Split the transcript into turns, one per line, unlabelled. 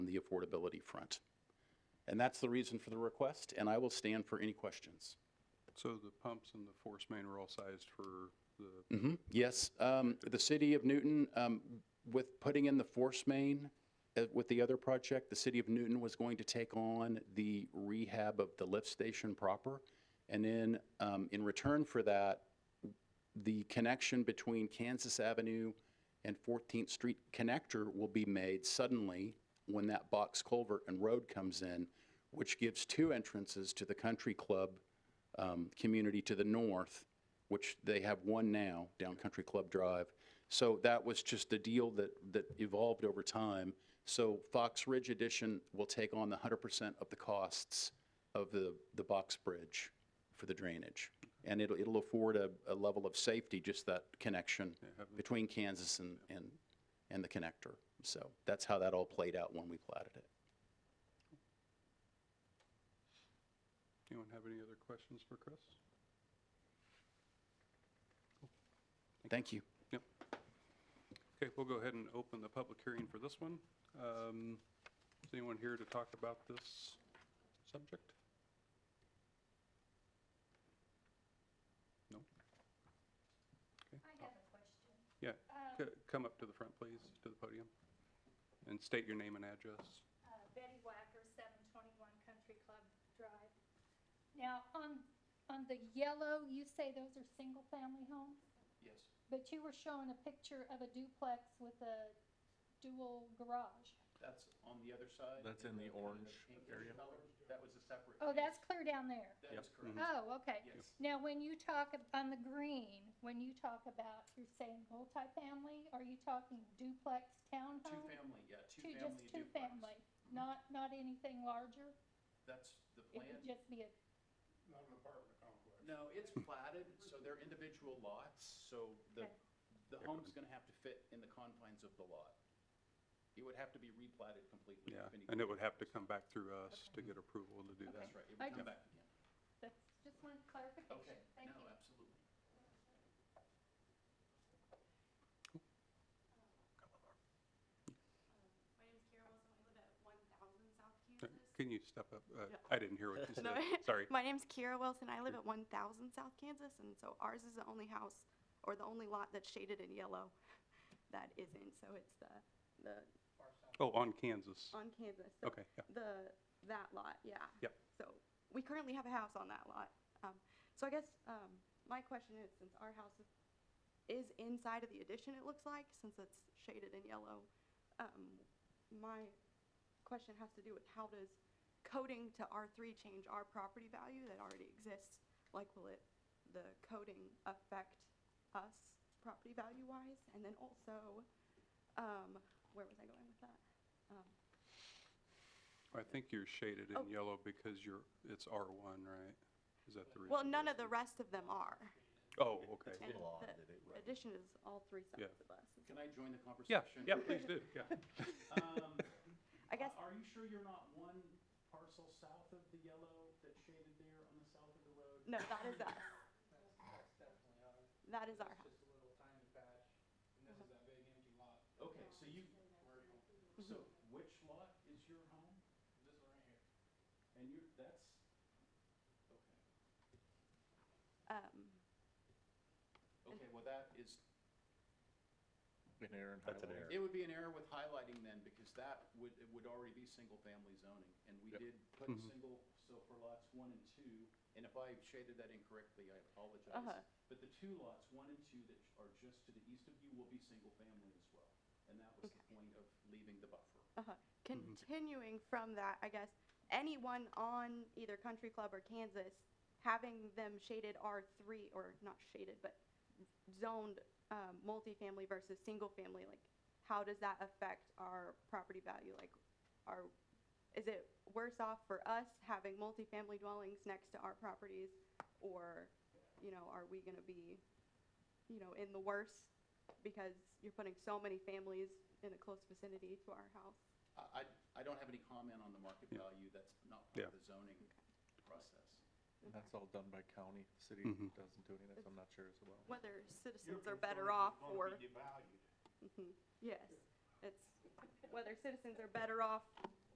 the affordability front. And that's the reason for the request, and I will stand for any questions.
So the pumps and the force main are all sized for the,
Mhm. Yes, um, the city of Newton, um, with putting in the force main uh, with the other project, the city of Newton was going to take on the rehab of the lift station proper. And then um, in return for that, the connection between Kansas Avenue and 14th Street connector will be made suddenly when that box culvert and road comes in, which gives two entrances to the country club um, community to the north, which they have one now down Country Club Drive. So that was just a deal that, that evolved over time. So Fox Ridge Edition will take on the 100% of the costs of the, the box bridge for the drainage. And it'll, it'll afford a, a level of safety, just that connection between Kansas and, and, and the connector. So that's how that all played out when we platted it.
anyone have any other questions for Chris?
Thank you.
Yep. Okay, we'll go ahead and open the public hearing for this one. Um, Is anyone here to talk about this subject? No?
I have a question.
Yeah,
Uh,
C- come up to the front, please, to the podium, and state your name and address.
uh, Betty Wacker, 721 Country Club Drive. Now, on, on the yellow, you say those are single-family homes,
Yes.
but you were showing a picture of a duplex with a dual garage.
That's on the other side.
That's in the orange area.
That was a separate.
Oh, that's clear down there.
That is correct.
Oh, okay.
Yes.
Now, when you talk ab- on the green, when you talk about, you're saying multifamily, are you talking duplex townhome?
Two-family, yeah,
Two-
two-family
Just
duplex.
two-family, not, not anything larger?
That's the plan.
It would just be a
No, it's platted, so they're individual lots, so the,
Okay.
the home's gonna have to fit in the confines of the lot. It would have to be replatted completely.
Yeah,
if any-
and it would have to come back through us to get approval to do that.
That's right, it
I
would come
just-
back again.
That's just one clarification.
Okay,
Thank
no,
you.
absolutely.
My name's Kira Wilson. I live at 1000 South
Uh,
Kansas.
Can you step up? Uh,
Yeah.
I didn't hear what you
No.
said, sorry.
My name's Kira Wilson. I live at 1000 South Kansas, and so ours is the only house or the only lot that's shaded in yellow that isn't. So it's the the
Oh, on Kansas.
on Kansas. So
Okay, yeah.
The that lot, yeah.
Yep.
So we currently have a house on that lot. Um, so I guess um, my question is, since our house is, is inside of the addition, it looks like, since it's shaded in yellow, um, my question has to do with how does coding to R three change our property value that already exists? Like, will it, the coding affect us property value wise? And then also, um, where was I going with that? Um,
I think you're shaded
Oh.
in yellow because you're, it's R1, right? Is that the reason?
Well, none of the rest of them are.
Oh, okay.
And the addition is all three
Yeah.
sides of us.
Can I join the
Yeah,
conversation?
yeah, please do, yeah.
Um,
I guess,
Are you sure you're not one parcel south of the yellow that's shaded there on the south of the road?
no, that is us.
That's, that's definitely ours.
That is our
It's just a little tiny patch, and this is that big empty lot.
Okay, so you, so which lot is your home?
This one right here.
And you're, that's, okay.
house. Um,
Okay, well, that is,
An error in
That's an
it
highlighting.
would be an error with highlighting then, because that would, it would already be single-family zoning. And we
Yep.
did put
Mhm.
single, so for lots one and two, and if I shaded that incorrectly, I
Uh-huh.
apologize. But the two lots, one and two, that are just to the east of you will be single-family as well. And that was the point of leaving the buffer.
continuing from that, I guess, anyone on either Country Club or Kansas, having them shaded R three, or not shaded, but zoned, um, multifamily versus single family, like, how does that affect our property value? Like, are, is it worse off for us having multifamily dwellings next to our properties? Or, you know, are we gonna be, you know, in the worst because you're putting so many families in a close vicinity to our house?
I, I- I don't have any comment on the market
Yeah.
value, that's not
Yeah.
part of the zoning process.
And that's all done by county. The City
Mm-hmm.
Mhm.
doesn't do any of this, I'm not sure as well.
whether citizens are better off or,
Devalued.
Mhm. yes, it's whether citizens are better off